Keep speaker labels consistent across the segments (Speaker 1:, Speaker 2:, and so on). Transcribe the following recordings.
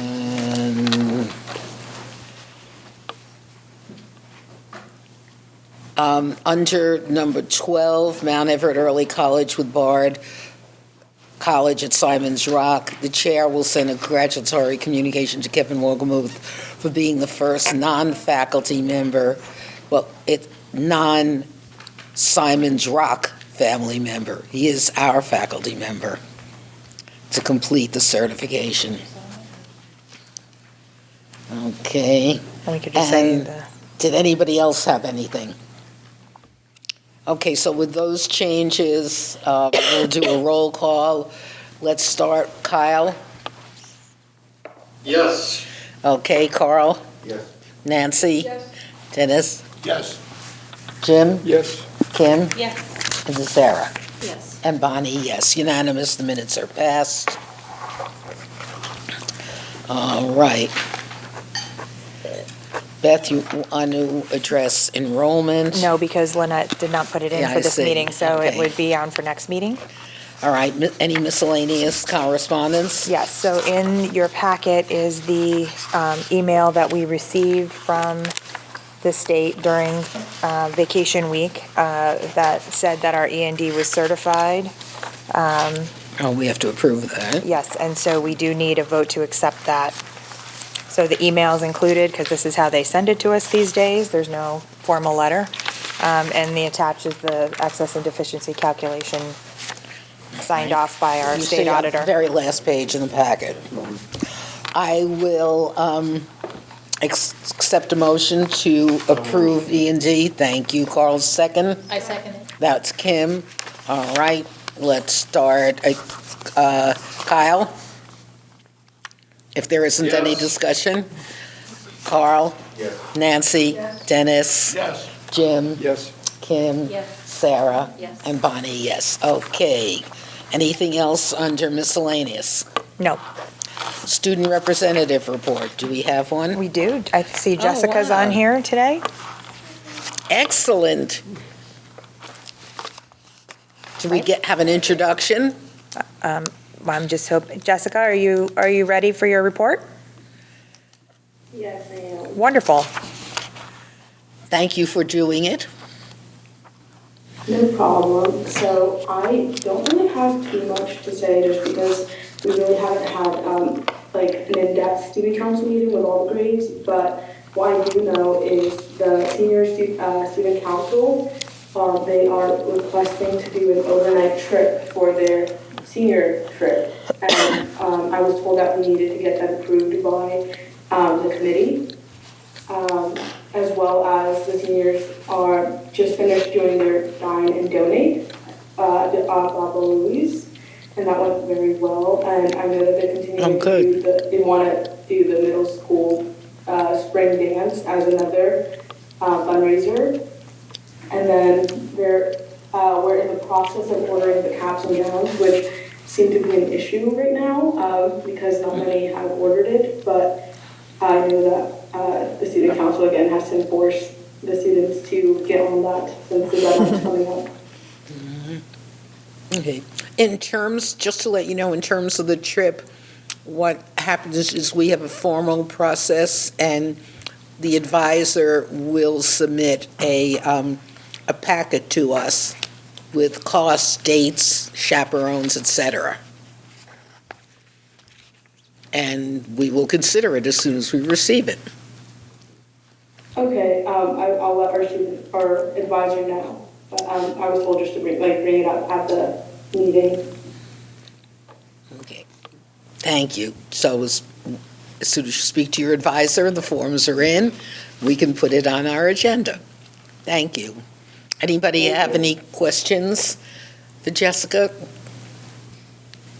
Speaker 1: And, um, Under number 12, Mount Everett Early College with Bard College at Simon's Rock, the chair will send a congratulatory communication to Kevin Wogomuth for being the first non-faculty member, well, it, non-Simon's Rock family member. He is our faculty member to complete the certification. Okay.
Speaker 2: And we could just say
Speaker 1: And-
Speaker 2: the,
Speaker 1: Did anybody else have anything? Okay, so with those changes, uh, we'll do a roll call. Let's start, Kyle.
Speaker 3: Yes.
Speaker 1: Okay, Carl?
Speaker 3: Yes.
Speaker 1: Nancy? Dennis?
Speaker 3: Yes.
Speaker 1: Jim?
Speaker 3: Yes.
Speaker 1: Kim?
Speaker 4: Yes.
Speaker 1: And Sarah?
Speaker 4: Yes.
Speaker 1: And Bonnie, yes, unanimous, the minutes are passed. All right. Beth, you want to address enrollment?
Speaker 2: no, because Lynette did not put it in
Speaker 1: Yeah,
Speaker 2: for
Speaker 1: I
Speaker 2: this
Speaker 1: see.
Speaker 2: meeting, so it
Speaker 1: Okay.
Speaker 2: would be on for next meeting.
Speaker 1: All right, mi- any miscellaneous correspondence?
Speaker 2: Yes, so in your packet is the um, email that we received from the state during uh, vacation week uh, that said that our E and D was certified.
Speaker 1: Oh, we have to approve that.
Speaker 2: Yes, and so we do need a vote to accept that. So the email's included, because this is how they send it to us these days, there's no formal letter. Um, And the attached is the excess and deficiency calculation signed off by our
Speaker 1: You see
Speaker 2: state
Speaker 1: on the
Speaker 2: auditor.
Speaker 1: Very last page in the packet. I will um, ex- accept a motion to approve E and D. Thank you, Carl, second.
Speaker 4: I second it.
Speaker 1: That's Kim. All right, let's start. Uh, Kyle? If there isn't any
Speaker 3: Yes.
Speaker 1: discussion? Carl?
Speaker 3: Yes.
Speaker 1: Nancy? Dennis?
Speaker 3: Yes.
Speaker 1: Jim?
Speaker 3: Yes.
Speaker 1: Kim?
Speaker 4: Yes.
Speaker 1: Sarah?
Speaker 4: Yes.
Speaker 1: And Bonnie, yes. Okay. Anything else under miscellaneous?
Speaker 2: No,
Speaker 1: Student representative report, do we have one?
Speaker 2: we do, I see Jessica's
Speaker 1: Oh, wow.
Speaker 2: on here today.
Speaker 1: Excellent. Do we get, have an introduction?
Speaker 2: I'm just hoping, Jessica, are you, are you ready for your report?
Speaker 5: Yes, I am.
Speaker 2: Wonderful.
Speaker 1: Thank you for doing it.
Speaker 5: No problem. So I don't really have too much to say just because we really haven't had um, like an in-depth student council meeting with all the grades. But what I do know is the senior stu- uh, student council, um, they are requesting to do an overnight trip for their senior trip. And um, I was told that we needed to get that approved by um, the committee. um, as well as the seniors are just finished doing their dine and donate uh, at Papa Louise, and that went very well. And I know that they're
Speaker 1: Oh,
Speaker 5: continuing
Speaker 1: good.
Speaker 5: to do the, they want to do the middle school uh, spring dance as another uh, fundraiser. And then they're, uh, we're in the process of ordering the caps and gowns, which seem to be an issue right now um, because not many have ordered it, but I know that uh, the student council again has to enforce the students to get on that since the deadline's coming up.
Speaker 1: Okay. In terms, just to let you know, in terms of the trip, what happens is we have a formal process and the advisor will submit a, um, a packet to us with costs, dates, chaperones, et cetera. And we will consider it as soon as we receive it.
Speaker 5: Okay, um, I, I'll let our student, our advisor know. But um, I was told just to bring, like, bring it up at the meeting.
Speaker 1: Okay. Thank you. So as, as soon as you speak to your advisor, the forms are in, we can put it on our agenda. Thank you. Anybody
Speaker 5: Thank
Speaker 1: have
Speaker 5: you.
Speaker 1: any questions for Jessica?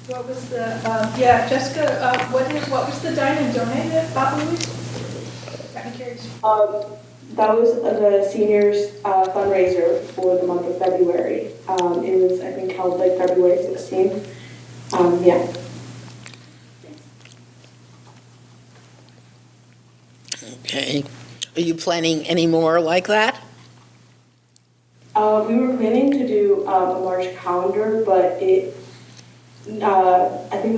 Speaker 6: What was the, um, yeah, Jessica, uh, what is, what was the dine and donate at Papa Louis? I'm curious.
Speaker 5: Um, that was the seniors uh, fundraiser for the month of February. Um, it was, I think, held like February 16th. Um, yeah.
Speaker 1: Okay. Are you planning any more like that?
Speaker 5: Uh, we were planning to do um, a large calendar, but it, uh, I think it was